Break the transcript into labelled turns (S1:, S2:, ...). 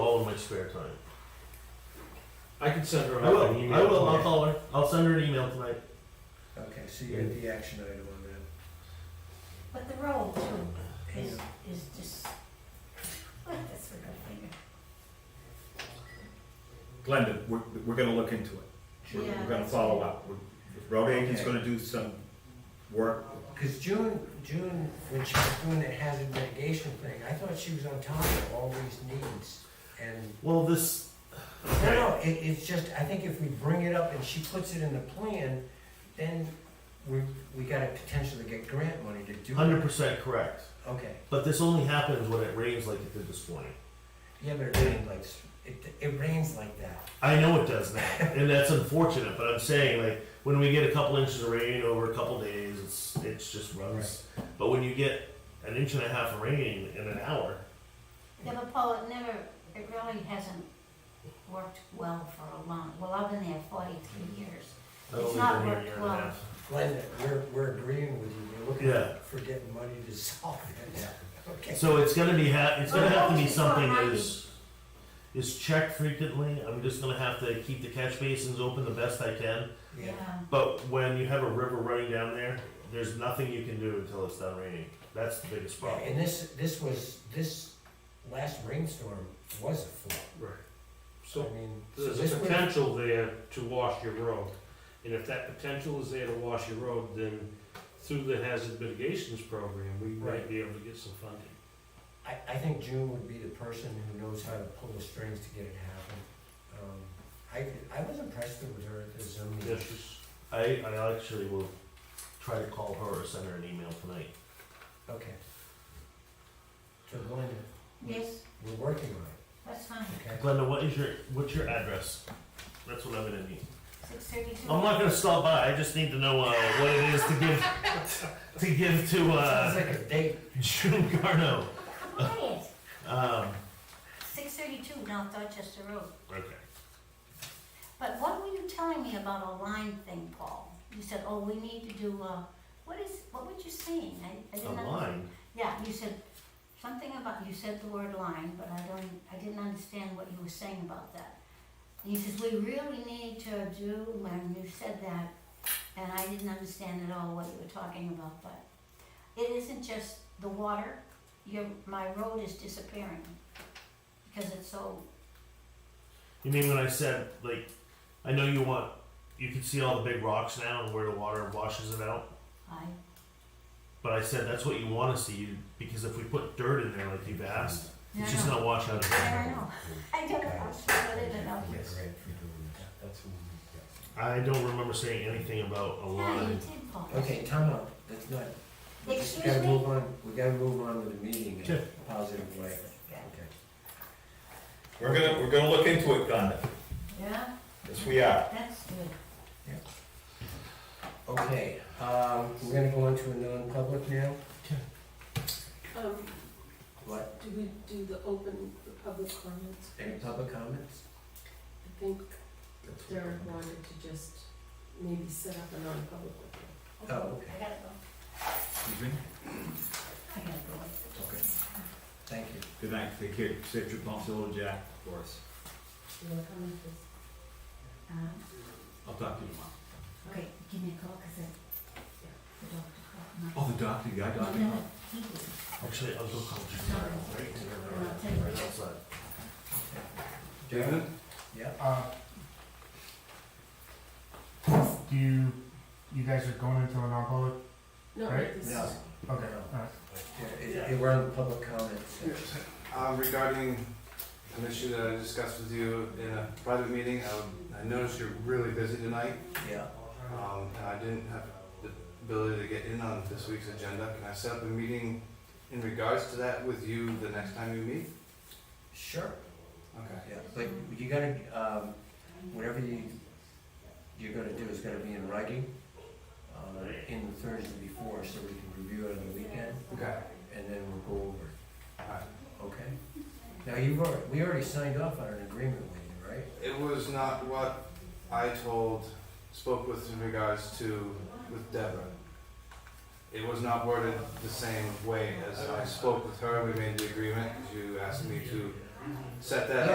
S1: his spare time.
S2: I could send her
S1: I
S2: out an
S1: will.
S2: email.
S1: I will. I'll
S2: tomorrow.
S1: call her. I'll send her an email tonight.
S3: Okay, so you got the action item on that.
S4: But the roll too
S3: Hang
S4: is,
S3: on.
S4: is just, that's a good finger.
S5: Glenda, we're, we're gonna look into it. We're,
S4: Yeah,
S5: we're gonna
S4: that's
S5: follow
S4: right.
S5: up. We're- Road agent's
S3: Okay.
S5: gonna do some work.
S3: Cause June, June, when she was doing that hazard mitigation thing, I thought she was on top of all these needs. And,
S1: Well, this.
S3: no, no, it, it's just, I think if we bring it up and she puts it in the plan, then we, we gotta potentially get grant money to do
S1: Hundred
S3: it.
S1: percent correct.
S3: Okay,
S1: But this only happens when it rains like it did this morning.
S3: yeah, but it rained like, s- it, it rains like that.
S1: I know it does now, and that's unfortunate. But I'm saying, like, when we get a couple inches of rain over a couple days, it's it's just runs. But when you get an inch and a half of rain in an hour,
S4: Yeah, but Paul, it never, it really hasn't worked well for a long, well, I've been there forty-three years.
S1: that
S4: It's
S1: only
S4: not
S1: been a
S4: worked
S1: year and a
S4: well.
S1: half.
S3: Glenda, we're, we're agreeing with you, we're
S1: Yeah.
S3: looking for getting money to solve it. Okay.
S1: So it's gonna be ha- it's gonna
S4: Well,
S1: have to be
S4: it's not
S1: something that
S4: hiding.
S1: is is checked frequently. I'm just gonna have to keep the catch basins open the best I can.
S3: Yeah,
S1: But when you have a river running down there, there's nothing you can do until it's done raining. That's the biggest
S3: Yeah,
S1: problem.
S3: and this, this was, this last rainstorm was a flood.
S2: Right.
S3: I
S2: So
S3: mean, so
S2: there's
S3: this
S2: a
S3: was-
S2: potential there to wash your road. And if that potential is there to wash your road, then through the hazard mitigations program, we might
S3: Right.
S2: be able to get some funding.
S3: I, I think June would be the person who knows how to pull the strings to get it happen. Um, I, I was impressed with her at the Zoom meeting.
S2: This is,
S1: I, I actually will try to call her or send her an email tonight.
S3: Okay. So Glenda,
S4: Yes,
S3: we're working on
S4: that's fine,
S3: it, okay?
S1: Glenda, what is your what's your address? That's what I'm gonna need.
S4: six thirty-two.
S1: I'm not gonna stop by. I just need to know uh, what it is to give to give to
S3: Sounds
S1: uh,
S3: like a date.
S1: June Garno.
S4: Quiet,
S1: Um,
S4: six thirty-two North Dorchester Road.
S1: okay.
S4: But what were you telling me about a line thing, Paul? You said, oh, we need to do, uh, what is, what were you saying? I, I
S1: A
S4: didn't understand.
S1: line.
S4: Yeah, you said something about, you said the word line, but I don't, I didn't understand what you were saying about that. And he says, we really need to do, when you said that, and I didn't understand at all what you were talking about, but it isn't just the water, your, my road is disappearing because it's so,
S1: You mean when I said like, I know you want you can see all the big rocks now and where the water washes it out.
S4: high.
S1: But I said that's what you want to see because if we put dirt in there like you've asked,
S4: Yeah,
S1: it's
S4: I
S1: just
S4: know.
S1: gonna wash out of
S4: I
S1: it.
S4: don't know, I don't know, I'm sure it is, I
S3: Yes.
S1: I don't remember saying anything about a
S4: Yeah, you
S1: line.
S4: did, Paul.
S3: Okay, time out, that's not, we just
S4: Excuse
S3: gotta move
S4: me?
S3: on, we gotta move on with the meeting in a
S1: Sure.
S3: positive way, okay?
S5: We're gonna, we're gonna look into it, Glenda.
S4: Yeah,
S5: Yes, we are.
S4: that's good.
S3: Okay, um, we're gonna go into a non-public now.
S6: Um,
S3: What,
S6: do we do the open, the public comments?
S3: any public comments?
S6: I think Derek wanted to just maybe set up a non-public one.
S3: Oh, okay.
S4: I gotta go,
S5: Excuse me?
S4: I gotta go.
S3: Okay, thank you.
S5: Good night. Take care. Safe trip home, Solo Jack, for us.
S6: You wanna come with this?
S4: Um,
S5: I'll talk to you tomorrow.
S4: Okay, give me a call, cause I, the doctor called. my-
S5: Oh, the doctor, you got a doctor?
S4: No, no, he did.
S1: Actually, I'll go call you. Right outside.
S3: David? Yeah?
S7: Uh, Do you, you guys are going into a non-public?
S6: No,
S7: Right?
S6: this is-
S3: No.
S7: Okay,
S3: No.
S7: alright.
S3: Yeah, it- it- We're on the public comments.
S8: Um, regarding an issue that I discussed with you in a private meeting, I, would- I noticed you're really busy tonight,
S3: Yeah,
S8: um, and I didn't have the ability to get in on this week's agenda. Can I set up a meeting in regards to that with you the next time you meet?
S3: sure.
S8: Okay.
S3: Yeah, but you gotta, um, whatever you, you're gonna do is gonna be in writing, um, in the Thursday before, so we can review it on the weekend,
S8: Okay.
S3: and then we'll go over, it,
S8: Alright.
S3: okay? Now, you've already, we already signed off on an agreement with you, right?
S8: It was not what I told, spoke with in regards to, with Deborah. It was not worded the same way as I spoke with her, we made the agreement, you asked me to set that